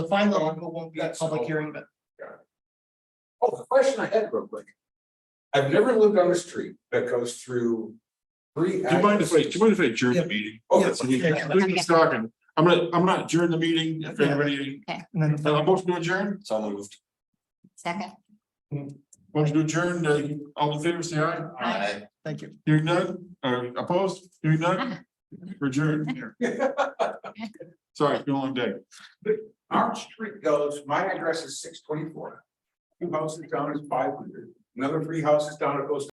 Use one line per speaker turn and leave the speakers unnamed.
final article won't be a
That's
public
all.
hearing, but
Oh, the question I had real quick. I've never lived on a street that goes through. three.
Do you mind if I, do you mind if I adjourn
Yeah.
the meeting?
Oh,
Yes.
that's-
Okay,
Yeah.
we're just talking. I'm gonna, I'm not adjourn the meeting, if anybody,
and then.
uh, motion to adjourn,
So moved.
Second.
motion to adjourn, uh, all in favor, say aye.
嗯
Aye.
Thank you.
Hearing none, or opposed, hearing none, adjourn, sorry, it's been a long day.
Our street goes, my address is six twenty-four. Two houses down is five hundred, another three houses down, it goes